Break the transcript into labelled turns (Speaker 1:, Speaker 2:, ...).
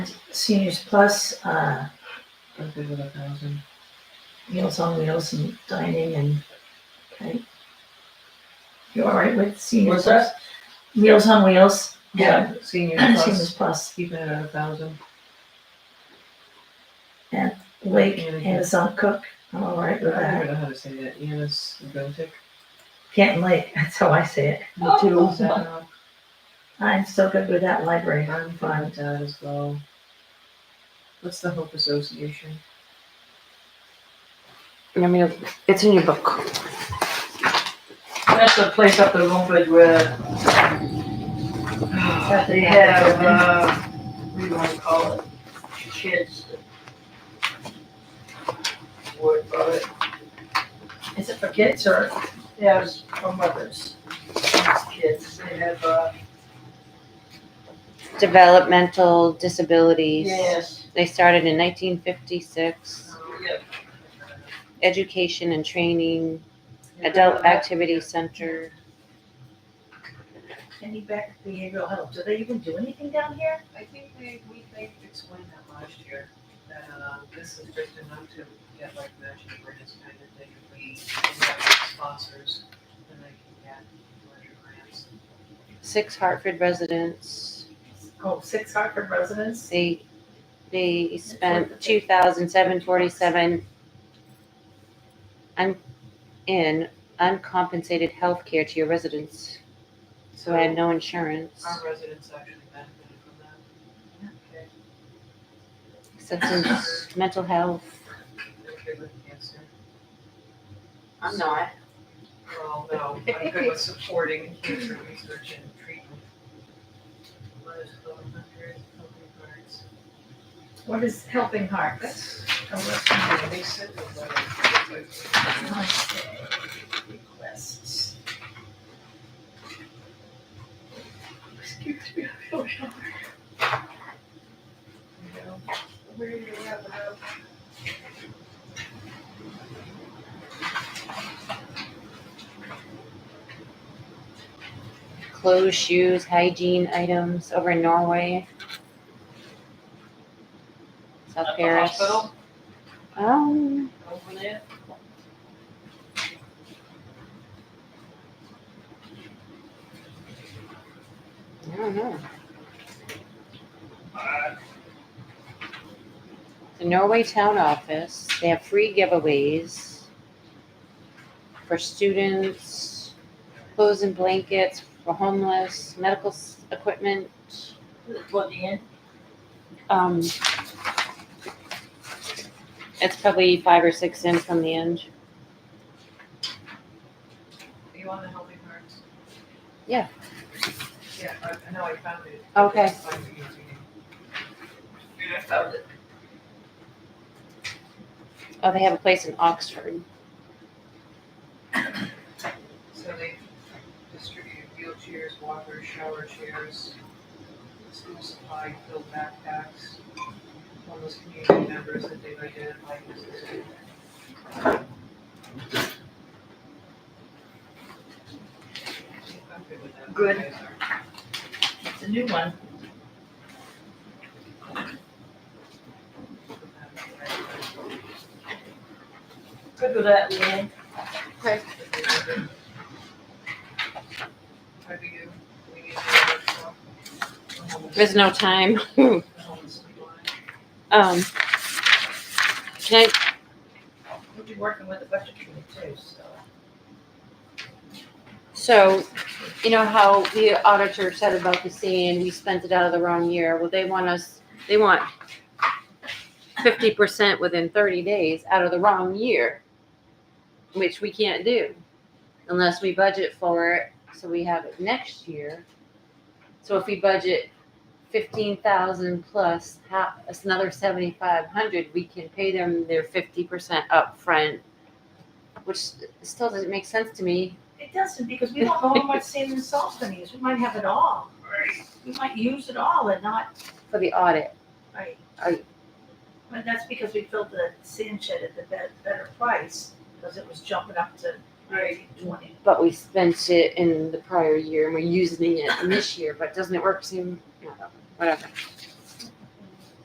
Speaker 1: Seniors Plus, uh,
Speaker 2: I'm good with a thousand.
Speaker 1: Meals on Wheels and dining and, okay. You all right with Seniors
Speaker 2: What's
Speaker 1: Plus? Meals on Wheels.
Speaker 2: Yeah, senior
Speaker 1: Seniors
Speaker 2: plus,
Speaker 1: Plus,
Speaker 2: keeping it at a thousand.
Speaker 1: Lake,
Speaker 2: Management.
Speaker 1: Amazon Cook, I'm all right with
Speaker 2: I don't
Speaker 1: that.
Speaker 2: even know how to say that, Yanis Gotik.
Speaker 1: Canton Lake, that's how I say it.
Speaker 2: Me too. I'm
Speaker 1: I'm still good with that library.
Speaker 2: fine with that as well. What's the Hope Association?
Speaker 3: I mean, it's in your book.
Speaker 4: That's the place up in Mumford where they have, uh, what do you wanna call it? Kids. Word for it.
Speaker 1: Is it for kids or?
Speaker 4: Yeah, it's for mothers, kids. They have, uh,
Speaker 3: Developmental disabilities.
Speaker 4: yes,
Speaker 3: They started in 1956.
Speaker 4: yep.
Speaker 3: Education and training, adult activity center.
Speaker 1: Any back behavioral health, do they even do anything down here?
Speaker 2: I think they, we, they explained that last year, that, uh, this is just enough to get like matching grants kind of thing, if we have sponsors, then they can get larger grants.
Speaker 3: Six Hartford residents.
Speaker 1: Oh, six Hartford residents?
Speaker 3: They they spent 2,747 un, in uncompensated health care to your residents who
Speaker 2: So
Speaker 3: had no insurance.
Speaker 2: our residents actually benefited from that. Okay.
Speaker 3: Substance, mental health.
Speaker 2: They're good with cancer.
Speaker 5: I'm not.
Speaker 2: Well, no, I'm good with supporting cancer research and treatment. Mothers of Love and Hunters, Healthy Hearts.
Speaker 1: What is Helping Hearts?
Speaker 2: That's, oh, that's, yeah, they said that, like,
Speaker 1: Requests.
Speaker 2: Excuse me, I feel shy. You know, Where do you have enough?
Speaker 3: clothes, shoes, hygiene items over in Norway. South
Speaker 4: At the
Speaker 3: Paris.
Speaker 4: hospital?
Speaker 3: Um,
Speaker 4: Over there.
Speaker 3: I don't know. The Norway Town Office, they have free giveaways for students, clothes and blankets for homeless, medical s- equipment,
Speaker 4: Toward the end.
Speaker 3: um. It's probably five or six in from the end.
Speaker 2: Are you on the Healthy Hearts?
Speaker 3: Yeah.
Speaker 2: Yeah, I, I know, I found it.
Speaker 3: Okay.
Speaker 2: It's on the easy.
Speaker 4: Yeah, I found it.
Speaker 3: Oh, they have a place in Oxford.
Speaker 2: So they distributed wheelchairs, walkers, shower chairs, school supply, filled backpacks, homeless community members that they've identified as the
Speaker 4: Good.
Speaker 1: It's a new one.
Speaker 4: Good with that, Leanne.
Speaker 2: How do you, we need to workshop? The homeless-
Speaker 3: There's no time.
Speaker 2: The homeless people.
Speaker 3: Um, can I,
Speaker 1: We'll be working with the budget committee too, so.
Speaker 3: so, you know how the auditor said about the scene, we spent it out of the wrong year, well, they want us, they want fifty percent within thirty days out of the wrong year, which we can't do unless we budget for it, so we have it next year. So if we budget fifteen thousand plus half, that's another seventy-five hundred, we can pay them their fifty percent upfront, which still doesn't make sense to me.
Speaker 1: It doesn't, because we don't know what sand and salt gonna use, we might have it all. We might use it all and not,
Speaker 3: for the audit.
Speaker 1: right?
Speaker 3: I-
Speaker 1: But that's because we filled the sand shed at the better, better price, because it was jumping up to
Speaker 4: Right.
Speaker 1: twenty.
Speaker 3: But we spent it in the prior year and we're using it in this year, but doesn't it work soon? No, Whatever.